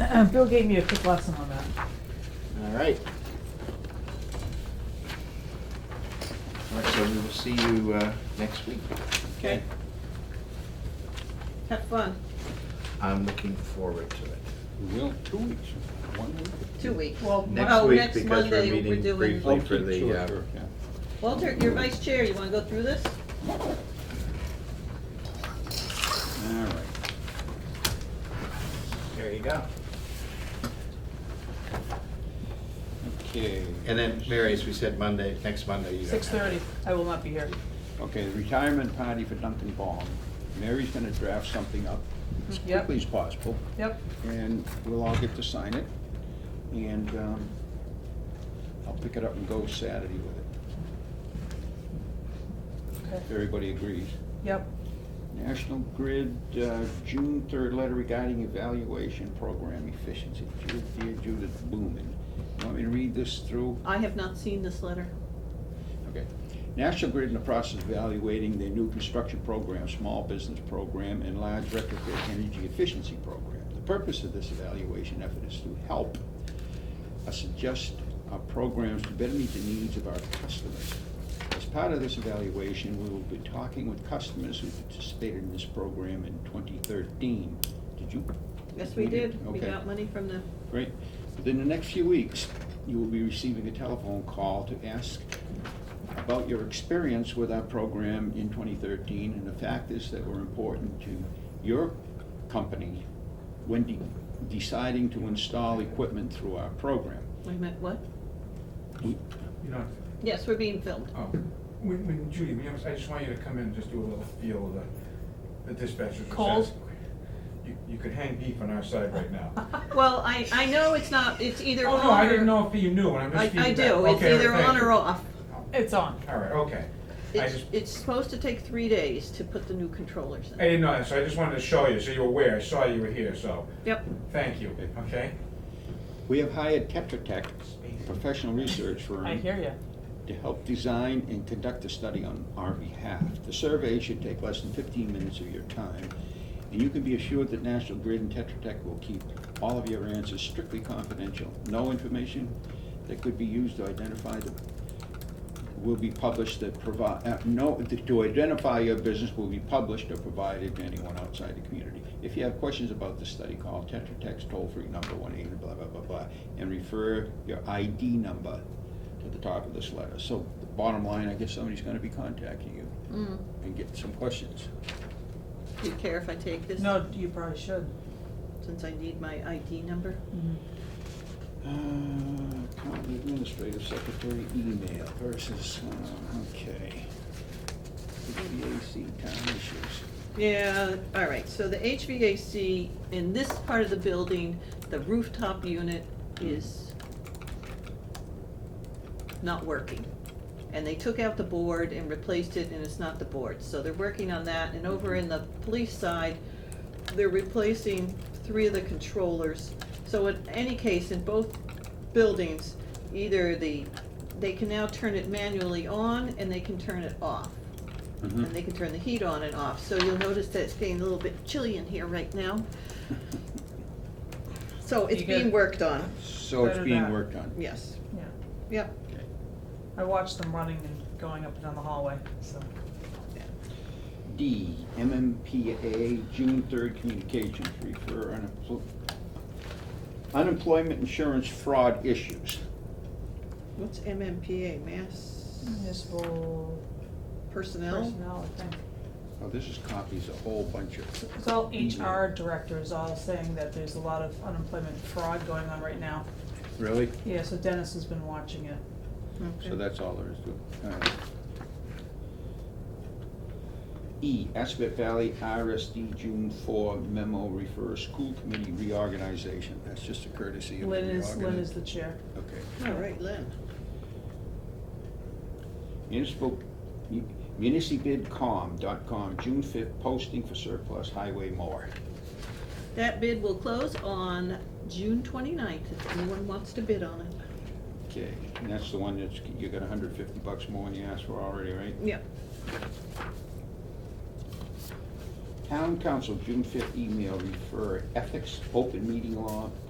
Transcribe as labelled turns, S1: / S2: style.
S1: Um, Bill gave me a quick lesson on that.
S2: All right. All right, so we will see you uh, next week.
S3: Okay. Have fun,
S2: I'm looking forward to it.
S4: We will, two weeks, one week.
S3: two weeks. Well,
S2: Next
S3: oh,
S2: week,
S3: next
S2: because we're
S3: Monday,
S2: meeting
S3: doing-
S2: briefly. Wait Oh, for the,
S4: Sure,
S2: uh,
S4: sure, yeah.
S3: Walter, you're vice chair, you wanna go through this?
S4: All right.
S2: There you go.
S4: Okay.
S2: And then, Mary, as we said, Monday, next Monday, you don't have.
S1: Six thirty, I will not be here.
S4: Okay, the retirement party for Duncan Baum. Mary's gonna draft something up as
S1: Yep.
S4: quickly as possible,
S1: Yep,
S4: and we'll all get to sign it. And, um, I'll pick it up and go Saturday with it,
S1: okay,
S4: if everybody agrees.
S1: yep,
S4: National Grid, uh, June third letter regarding evaluation program efficiency. Dear dear Judith Blumen, want me to read this through?
S3: I have not seen this letter.
S4: Okay. National Grid in the process of evaluating their new construction program, small business program, and large retrofit energy efficiency program. The purpose of this evaluation effort is to help us adjust our programs to better meet the needs of our customers. As part of this evaluation, we will be talking with customers who participated in this program in twenty thirteen. Did you
S3: Yes, we
S4: We did,
S3: did, we
S4: okay.
S3: got money from them.
S4: Great. Within the next few weeks, you will be receiving a telephone call to ask about your experience with our program in 2013 and the factors that were important to your company when de- deciding to install equipment through our program.
S3: Wait a minute, what?
S4: We-
S5: You know,
S3: Yes, we're being filmed.
S5: oh, when, when Judy, when you- I just want you to come in and just do a little feel of the, the dispatcher's
S1: Cold?
S5: assessment. You, you could hang beef on our side right now.
S3: Well, I, I know it's not, it's either
S5: Oh,
S3: on or.
S5: no, I didn't know if you knew, and I'm
S3: I,
S5: just
S3: I
S5: feeding back.
S3: do, it's
S5: Okay,
S3: either
S5: thank
S3: on or
S5: you.
S3: off.
S1: it's on.
S5: All right, okay. I
S3: It's,
S5: just,
S3: it's supposed to take three days to put the new controllers
S5: I
S3: in.
S5: didn't know that, so I just wanted to show you, so you're aware, I saw you were here, so,
S3: Yep,
S5: thank you, okay?
S4: We have hired Tetra Tech, professional research firm.
S1: I hear you.
S4: to help design and conduct a study on our behalf. The survey should take less than fifteen minutes of your time, and you can be assured that National Grid and Tetra Tech will keep all of your answers strictly confidential. No information that could be used to identify the, will be published that provide, uh, no, to identify your business will be published or provided to anyone outside the community. If you have questions about the study, call Tetra Tech's toll-free number, one eight hundred blah, blah, blah, blah, and refer your ID number at the top of this letter. So the bottom line, I guess somebody's gonna be contacting you
S3: mm,
S4: and get some questions.
S3: do you care if I take this?
S1: No, you probably should.
S3: Since I need my ID number?
S4: Uh, County Administrative Secretary email versus, uh, okay. The WAC town issues.
S3: Yeah, all right, so the HVAC in this part of the building, the rooftop unit is not working. And they took out the board and replaced it, and it's not the board, so they're working on that, and over in the police side, they're replacing three of the controllers. So in any case, in both buildings, either the, they can now turn it manually on, and they can turn it off and they can turn the heat on and off, so you'll notice that it's getting a little bit chilly in here right now. So it's
S1: You get-
S3: being worked on,
S4: So it's
S1: Better
S4: being
S1: that.
S4: worked on.
S3: yes,
S1: Yeah,
S3: yep,
S1: I watched them running and going up and down the hallway, so.
S4: D, MMPA, June third communications, refer unempl- unemployment insurance fraud issues.
S3: what's MMPA, Mass
S1: Municipal
S3: Personnel?
S1: personnel, I think.
S4: Oh, this is copies, a whole bunch of.
S1: It's all HR directors all saying that there's a lot of unemployment fraud going on right now.
S4: Really?
S1: Yeah, so Dennis has been watching it.
S3: Okay.
S4: So that's all there is to it. All right. E, Aspet Valley RSD June four memo refers school committee reorganization. That's just a courtesy of the
S1: Lynn is, Lynn
S4: reorgani-
S1: is the chair.
S4: Okay.
S3: All right, Lynn,
S4: Municipal, municipalbidcom.com, June fifth, posting for surplus highway mower.
S3: that bid will close on June twenty-ninth, if anyone wants to bid on it,
S4: Okay, and that's the one that's, you got hundred fifty bucks more than you asked for already, right?
S3: yep,
S4: Town council, June fifth email, refer ethics, open meeting law,